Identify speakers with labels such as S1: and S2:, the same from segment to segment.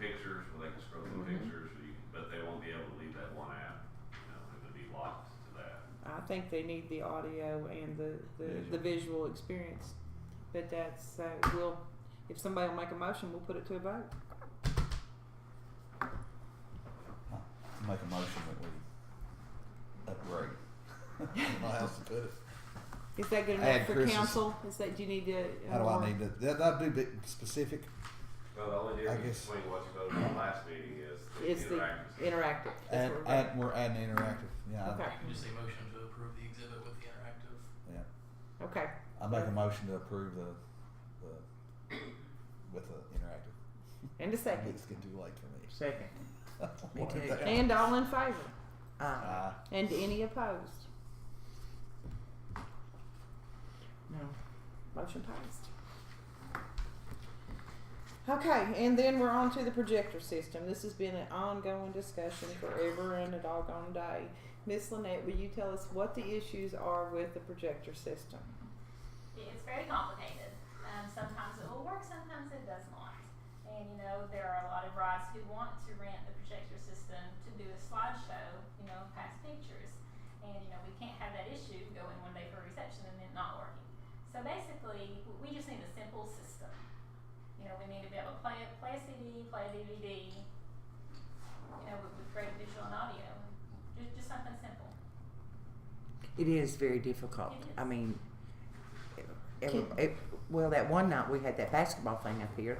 S1: pictures where they can scroll through
S2: Mhm.
S3: Mm-hmm.
S1: pictures, so you, but they won't be able to leave that one app. You know, it would be locked to that.
S4: I think they need the audio and the, the, the visual experience. But that's, uh, we'll, if somebody will make a motion, we'll put it to a vote.
S2: Make a motion that we upgrade.
S3: I'll have to put it.
S4: Is that good
S3: Add
S4: enough for
S3: Chris's-
S4: council? Is that, do you need to? uh,
S3: How do I need to? That, that'd be a bit specific.
S1: Well, the only
S3: I
S1: difference
S3: guess-
S1: between what you voted on last meeting is
S4: It's
S1: the
S4: the
S1: interactive. stuff.
S4: interactive. That's
S3: Add,
S4: what we're
S3: add, we're adding interactive. Yeah. I-
S4: Okay.
S5: You can just say motion to approve the exhibit with the interactive.
S3: Yeah.
S4: doing. Okay,
S3: I make a motion to approve the, the with the interactive.
S4: and a second.
S3: It's getting too late for
S6: Second.
S3: me.
S6: Me too.
S3: What the hell?
S4: And all in favor?
S6: Uh,
S3: Uh,
S4: And any opposed?
S6: no.
S4: Motion passed. Okay, and then we're on to the projector system. This has been an ongoing discussion forever and a doggone day. Miss Lynette, will you tell us what the issues are with the projector system?
S7: It's very complicated. Um, sometimes it will work, sometimes it does not. And you know, there are a lot of brides who want to rent the projector system to do a slideshow, you know, past pictures. And you know, we can't have that issue going one day for a reception and then not working. So basically, w- we just need a simple system. You know, we need to be able to play it, play a CD, play a DVD. You know, with, with great visual and audio, just just something simple.
S6: It is very difficult.
S7: It is.
S6: I mean, every, it, well, that one night we had that basketball thing up here,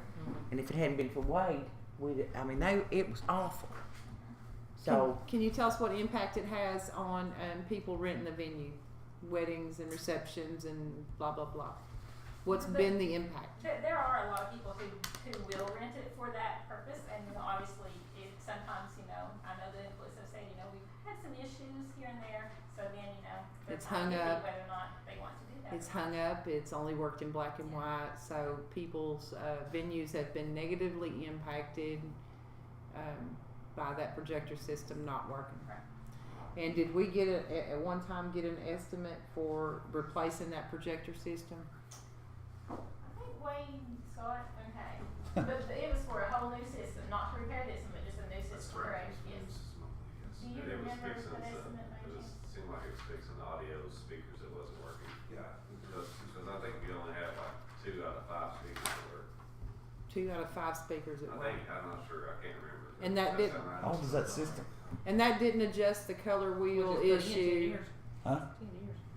S6: and if it hadn't been for Wade, we'd, I mean, they, it was awful. So,
S4: Can you tell us what impact it has on um, people renting the venue, weddings and receptions and blah, blah, blah? What's been the impact?
S7: There, there are a lot of people who, who will rent it for that purpose, and you know, obviously, it sometimes, you know, I know the influencers say, you know, we've had some issues here and there, so then, you know, they're
S4: It's hung
S7: trying to see
S4: up.
S7: Whether or not they want to do that.
S4: It's hung up, it's only worked in black and white, so people's uh, venues have been negatively impacted um, by that projector system not working.
S7: Right.
S4: And did we get a, at- at one time get an estimate for replacing that projector system?
S7: I think Wayne saw it, okay, but but it was for a whole new system, not to repair this one, but just a new
S1: That's
S7: system,
S1: correct.
S7: correct? Yes. Do you
S1: And it was
S7: remember
S1: fixing some,
S7: that estimate,
S1: it was, seemed like it was fixing the audio speakers that wasn't working. Yeah. Because, because I think we only had like two out of five speakers that were,
S4: Two out of five speakers at
S1: I
S4: work.
S1: think, I'm not sure, I can't remember.
S4: And that
S1: Does
S4: did-
S1: sound right?
S3: how old is that system?
S4: And that didn't adjust the color wheel issue.
S3: Huh?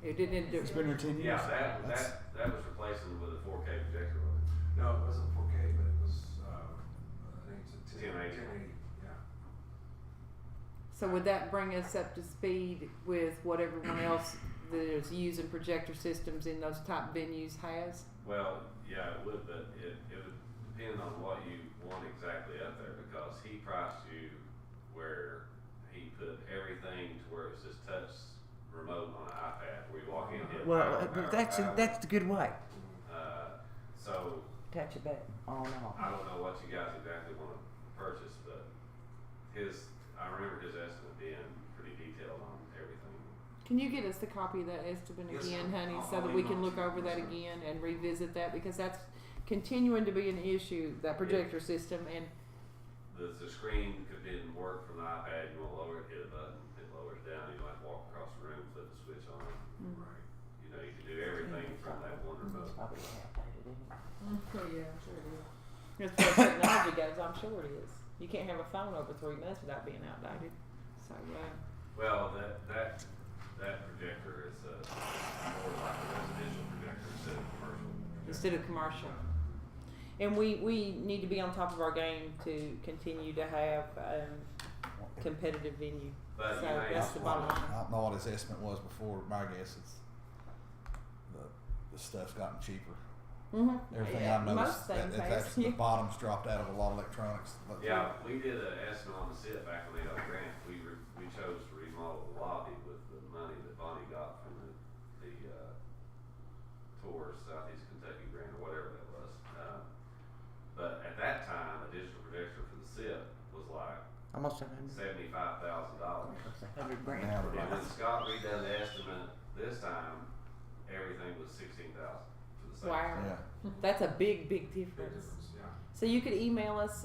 S4: It didn't do
S3: It's been here ten years.
S1: Yeah, that,
S3: That's-
S1: that, that was replacing with a four K projector, wasn't it?
S8: No, it wasn't 4K, but it was, uh, I think it's a 10,
S1: 1080.
S8: 1080. Yeah.
S4: So would that bring us up to speed with what everyone else that is using projector systems in those top venues has?
S1: Well, yeah, it would, but it, it would depend on what you want exactly up there, because he priced you where he put everything to where it's just touch remote on an iPad, where you walk in, hit.
S6: well,
S1: power,
S6: uh,
S1: power,
S6: that's,
S1: power.
S6: that's the good way.
S1: Uh, so,
S6: Touch it back on and off.
S1: I don't know what you guys exactly wanna purchase, but his, I remember his estimate being pretty detailed on everything.
S4: Can you get us the copy of that estimate
S8: Yes,
S4: again,
S8: ma'am.
S4: honey,
S8: I'll-
S4: so
S8: I'll
S4: that we can
S8: email it
S4: look
S8: to you.
S4: over that
S8: Yes, ma'am.
S4: again and revisit that because that's continuing to be an issue, that projector system and
S1: The, the screen could didn't work from the iPad, you wanna lower it, hit a button, it lowers down, you might walk across the room, flip the switch on,
S4: Mm-hmm.
S8: Right.
S1: You know, you can do everything from that one
S6: It's
S1: remote.
S6: probably outdated, isn't it?
S4: Mm, as far as technology goes, I'm sure it is. You can't have a phone over three months without being outdated. So, uh,
S1: Well, that, that, that projector is a, more like a residential projector instead of commercial.
S4: instead of commercial. And we, we need to be on top of our game to continue to have um, competitive venue.
S1: But
S4: So
S1: you may,
S4: that's the bottom line.
S3: I don't know what his estimate was before. but My guess is the, the stuff's gotten cheaper.
S4: Mm-hmm.
S3: Everything I've
S4: most
S3: noticed, that,
S4: things
S3: in
S4: has.
S3: fact, the bottom's dropped out of a lot of electronics. Look,
S1: yeah, we did an estimate on the sit back when they got the grant. We re, we chose to remodel the lobby with the money that Bonnie got from the, the, uh, tour Southeast Kentucky grant or whatever that was. Um, but at that time, a digital projector for the SIP was like
S6: Almost a hundred,
S1: seventy-five thousand dollars.
S6: almost a hundred grand.
S3: Now
S1: And
S3: we're
S1: when Scott redone the estimate this time, everything was sixteen thousand for the same.
S4: Wow.
S3: yeah.
S4: That's a big, big
S8: Big
S4: difference.
S8: difference, yeah.
S4: So you could email us